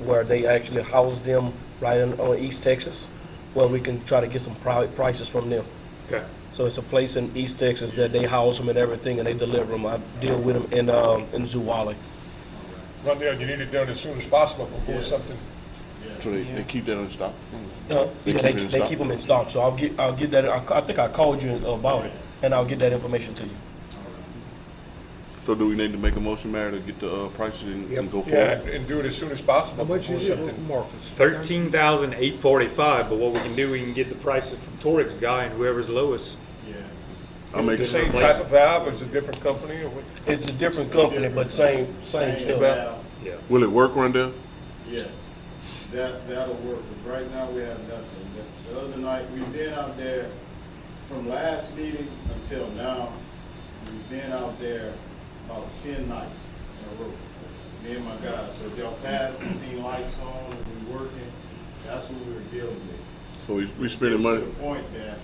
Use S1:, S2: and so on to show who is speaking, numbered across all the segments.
S1: where they actually house them right in, on East Texas, where we can try to get some private prices from them.
S2: Okay.
S1: So it's a place in East Texas that they house them and everything, and they deliver them. I deal with them in, um, in Zuwali.
S2: Rondell, you need it done as soon as possible before something,
S3: So they, they keep that in stock?
S1: Uh,
S3: They
S1: Yeah,
S3: keep
S1: they,
S3: it in
S1: they
S3: stock?
S1: keep them in stock, so I'll get, I'll get that, I, ca- I think I called you about it, and I'll get that information to you.
S3: So do we need to make a motion, Mayor, to get the, uh, prices and, and go
S2: yeah,
S3: forward?
S2: and do it as soon as possible
S4: How much
S2: before
S4: is it,
S2: something.
S4: Marcus?
S5: Thirteen thousand eight forty-five, but what we can do, we can get the prices from Torix guy and whoever's lowest.
S3: I make,
S2: The same
S5: Place.
S2: type of valve, it's a different company or what?
S1: It's a different company, but same, same stuff.
S6: Well,
S5: Yeah.
S3: will it work, Rondell?
S6: Yes, that, that'll work, but right now we have nothing. The- The other night, we've been out there from last meeting until now, we've been out there about ten nights in a row. Me and my guys, so if y'all pass and see lights on and we working, that's what we're dealing with.
S3: So we, we spending money,
S6: To the point that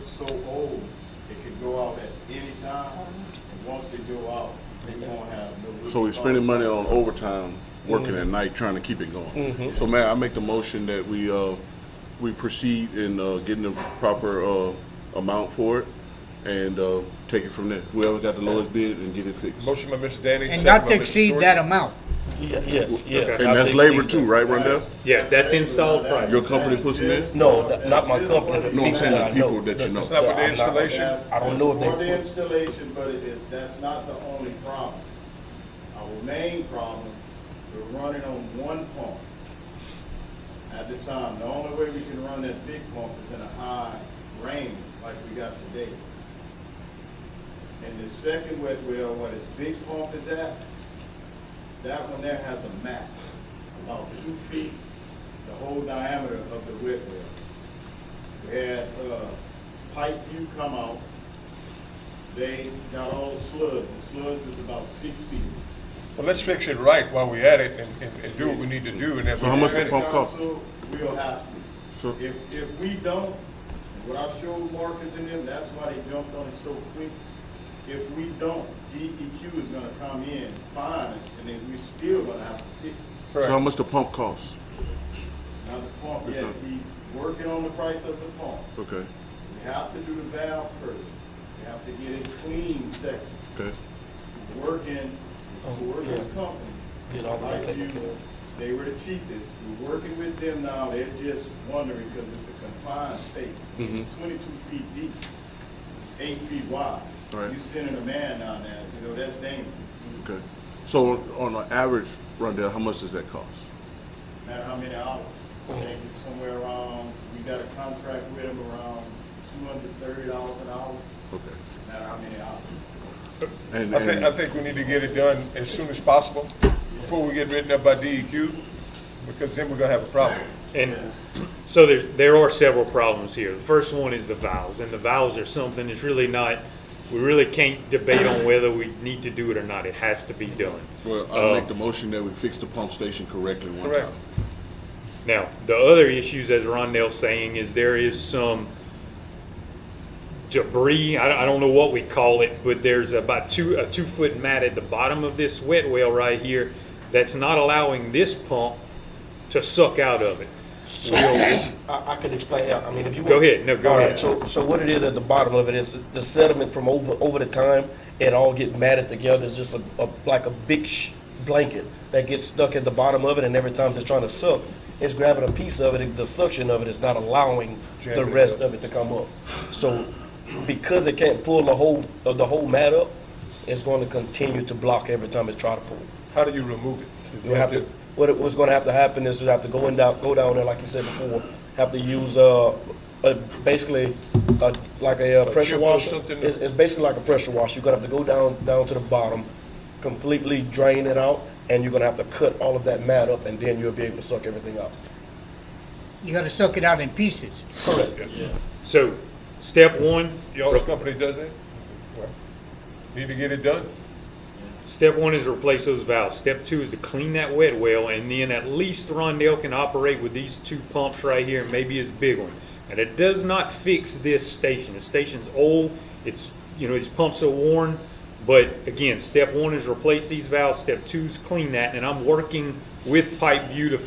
S6: it's so old, it could go out at any time, and once it go out, they won't have no.
S3: so we spending money on overtime, working at night, trying to keep it going. So Mayor, I make the motion that we, uh, we proceed in, uh, getting the proper, uh, amount for it and, uh, take it from there. Whoever got the lowest bid and get it fixed.
S2: Motion by Mr. Danny.
S7: And
S2: second
S7: not
S2: by
S7: to
S2: Mr.
S7: exceed
S2: Jordan.
S7: that amount.
S1: Ye- Yes, yes.
S3: And that's
S1: I'll
S3: labor
S1: take-
S3: too, right, Rondell?
S6: That's-
S5: Yeah, that's installed
S6: that's-
S5: price.
S3: Your company puts them in?
S1: No, that- not my
S6: That's
S1: company,
S6: just
S1: the
S3: No,
S1: people
S3: I'm saying
S1: that
S3: the
S1: I
S3: people
S1: know.
S3: that you
S2: It's
S3: know.
S2: not with the
S1: I'm not-
S2: installation?
S6: That's-
S1: I don't know if they
S6: that's For the
S1: put-
S6: installation, but it is, that's not the only problem. Our main problem, we're running on one pump at the time. The only way we can run that big pump is in a high rain like we got today. And the second wet well, where this big pump is at, that one there has a map, about two feet, the whole diameter of the wet well. We had, uh, Pikeview come out, they got all the sludge, the sludge was about six feet.
S2: Well, let's fix it right while we at it and, and, and do what we need to do and then.
S3: So how much the
S2: we'll
S3: pump-
S2: finish.
S3: cost?
S6: Council, We'll have
S3: So-
S6: to. If, if we don't, what I showed Marcus in them, that's why they jumped on it so quick. If we don't, DEQ is gonna come in, fine us, and then we still gonna have to fix it.
S3: So how
S2: Correct.
S3: much the pump costs?
S6: Now the pump, yeah, he's working on the price of the pump.
S3: Okay,
S6: We have to do the valves first. We have to get it clean second.
S3: okay.
S6: working for this company.
S1: Oh, Get all that
S6: Like
S1: taken
S6: you,
S1: care of.
S6: they were the cheapest. We're working with them now, they're just wondering, because it's a confined space.
S3: Mhm.
S6: Twenty-two feet deep, eight feet wide.
S3: Right.
S6: You sending a man down there, you know, that's dangerous.
S3: Okay. So on an average, Rondell, how much does that cost?
S6: No Matter how many hours. I
S1: Oh.
S6: think it's somewhere around, we got a contract with them around two hundred thirty dollars an hour,
S3: Okay.
S6: no matter how many hours.
S3: And,
S2: I think, I
S3: and,
S2: think we need to get it done as soon as possible before we get written up by DEQ because then we're gonna have a problem.
S5: And so there, there are several problems here. The first one is the valves, and the valves are something that's really not, we really can't debate on whether we need to do it or not. It has to be done.
S3: well, I make the motion that we fix the pump station correctly one
S2: Correct.
S3: time.
S5: Now, the other issues, as Rondell's saying, is there is some debris, I don't, I don't know what we call it, but there's about two, a two-foot mat at the bottom of this wet well right here that's not allowing this pump to suck out of it. We'll-
S1: I, I can explain, I mean, if you.
S5: Go
S1: want-
S5: ahead. No, go
S1: All right,
S5: ahead.
S1: So, so what it is at the bottom of it is the sediment from over, over the time, it all get matted together, it's just a, a, like a big sh- blanket that gets stuck at the bottom of it, and every time it's trying to suck, it's grabbing a piece of it, and the suction of it is not allowing the
S2: Jamming it
S1: rest
S2: up.
S1: of it to come up. So, because it can't pull the whole, of the whole mat up, it's gonna continue to block every time it's trying to pull.
S2: How do you remove it?
S1: You have to, what it was gonna have to happen is you have to go in down, go down there, like you said before, have to use, uh, uh, basically, uh, like a uh,
S2: A
S1: pressure
S2: chip or
S1: washer.
S2: something?
S1: It's, it's basically like a pressure washer. You're gonna have to go down, down to the bottom, completely drain it out, and you're gonna have to cut all of that mat up, and then you'll be able to suck everything out.
S7: You gotta suck it out in pieces.
S5: So, step one,
S2: Y'all's company does it? Well, Need to get it done?
S5: Step one is replace those valves. Step two is to clean that wet well, and then at least Rondell can operate with these two pumps right here, and maybe his big one. And it does not fix this station. The station's old. It's you know these pumps are worn. But again, step one is replace these valves. Step two is clean that, and I'm working with Pipe View to